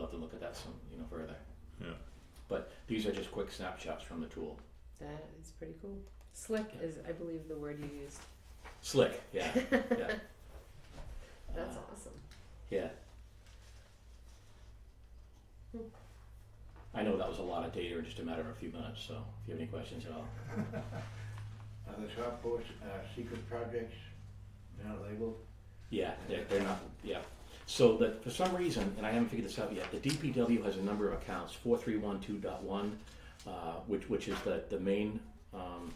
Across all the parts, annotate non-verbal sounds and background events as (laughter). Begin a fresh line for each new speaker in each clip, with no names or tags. that some, you know, further.
Yeah.
But these are just quick snapshots from the tool.
That is pretty cool. Slick is, I believe, the word you used.
Slick, yeah,
(laughs)
yeah.
That's
Uh,
awesome.
Yeah.
Hmm.
I know that was a lot of data in just a matter of a few minutes, so if you have any questions at all.
Are the shop force, uh, secret projects now labeled?
Yeah, they're, they're not, yeah. So that, for some reason, and I haven't figured this out yet, the DPW has a number of accounts, four three one two dot one, uh, which, which is the, the main, um,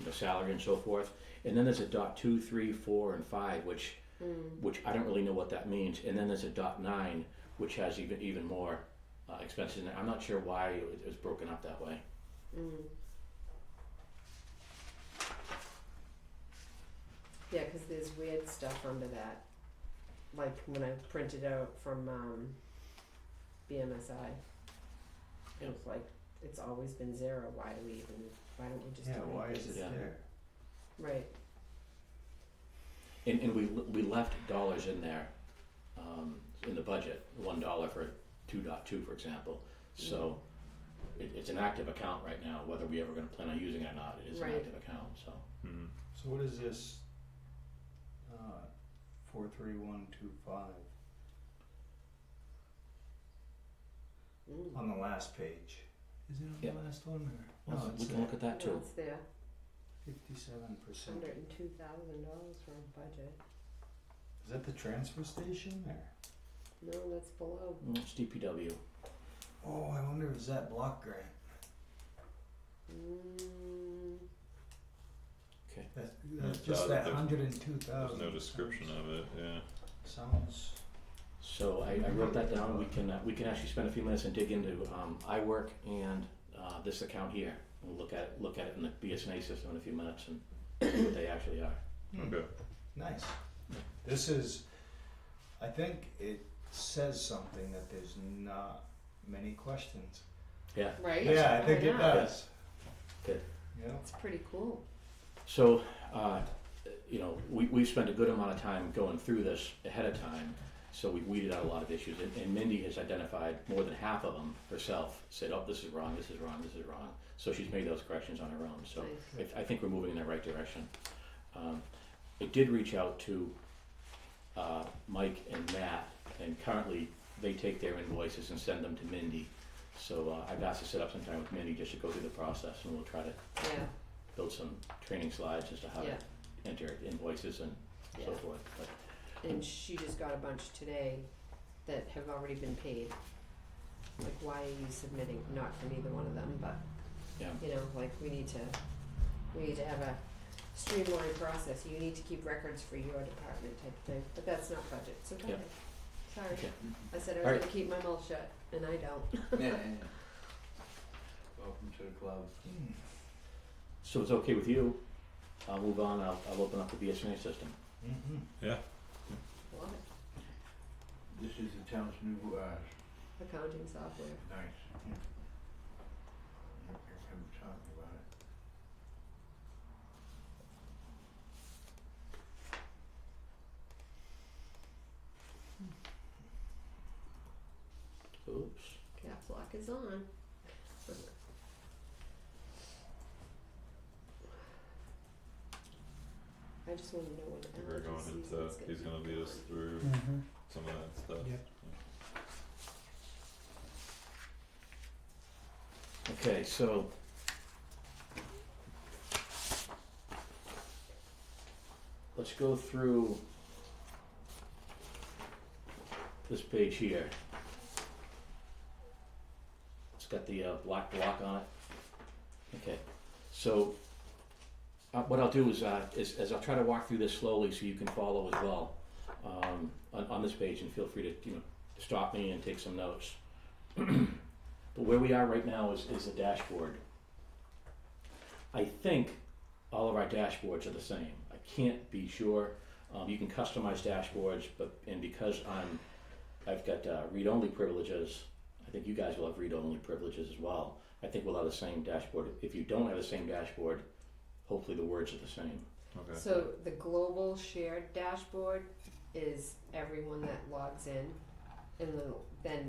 you know, salary and so forth. And then there's a dot two, three, four, and five, which, which I don't really know what that means. And then there's a dot nine, which has even, even more, uh, expenses in it. I'm not sure why it was- it was broken up that way.
Yeah, because there's weird stuff under that. Like when I printed out from um, BMSI, it was like it's always been zero. Why do we even? Why don't we just?
Yeah,
do
why
it?
is it
Yeah.
there?
Right.
And, and we, we left dollars in there, um, in the budget, one dollar for two dot two, for example. So it, it's an active account right now, whether we ever gonna plan on using it or not, it is an
Right.
active account, so.
Mm.
So what is this, uh, four three one two five,
Mm.
on the last page? Is it on
Yeah.
the last one or?
Well,
No,
We
it's
can look at that
No,
too.
it's there.
fifty-seven percent.
Hundred and two thousand dollars for a budget.
Is that the transfer station there?
No, that's below.
Mm, It's DPW,
Oh, I wonder if it's that block grant.
Mm,
That's,
that's Yeah, just that- that there's-
hundred and two
There's no description of it, yeah.
Sounds.
so I, I wrote that down, we can, uh, we can actually spend a few minutes and dig into, um, iWork and, uh, this account here. We'll look at, it- look at it in the BSNA system in a few minutes and see what they actually are.
Okay.
Nice. This is, I think it says something that there's not many questions.
Yeah,
right.
Yeah, I think it uh,
know.
does.
Good.
Yeah.
It's pretty cool.
So, uh, you know, we, we've spent a good amount of time going through this ahead of time, so we weeded out a lot of issues, and, and Mindy has identified more than half of them herself, said, oh, this is wrong, this is wrong, this is wrong. So she's made those corrections on her own, so
Nice.
I, I think we're moving in the right direction. Um, I did reach out to, uh, Mike and Matt, and currently they take their invoices and send them to Mindy. So, uh, I've asked to set up some time with Mindy just to go through the process, and we'll try to
Yeah.
build some training slides as to how
Yeah.
to enter invoices and
Yeah.
so forth. But
And she just got a bunch today that have already been paid. Like, why are you submitting? Not from either one of them, but
yeah,
you know, like we need to, we need to have a streamlined process. You need to keep records for your department type thing, but that's not budget, so go
Yeah.
ahead. Sorry,
Okay.
I said I
All
was
right.
gonna keep my mouth shut, and I don't.
Welcome to the club.
Hmm.
so it's okay with you. I'll move on. I'll, I'll open up the BSNA system.
Mhm.
Love it.
This is the town's new, uh,
Accounting software.
nice. You can talk about it.
Oops.
Caps lock is on. I just wanna know when
We're
allergy
going
season
into,
is gonna be.
he's gonna lead us through some of that stuff.
Yep.
Okay, so. Let's go through this page here. It's got the uh, black block on it. Okay, so uh, what I'll do is, uh, is, is I'll try to walk through this slowly so you can follow as well um, on, on this page, and feel free to you know stop me and take some notes. But where we are right now is, is the dashboard. I think all of our dashboards are the same. I can't be sure. Um, you can customize dashboards, but and because I'm, I've got uh, read-only privileges. I think you guys will have read-only privileges as well. I think we'll have the same dashboard. If you don't have the same dashboard, hopefully the words are the same.
Okay.
So the global shared dashboard is everyone that logs in and then- then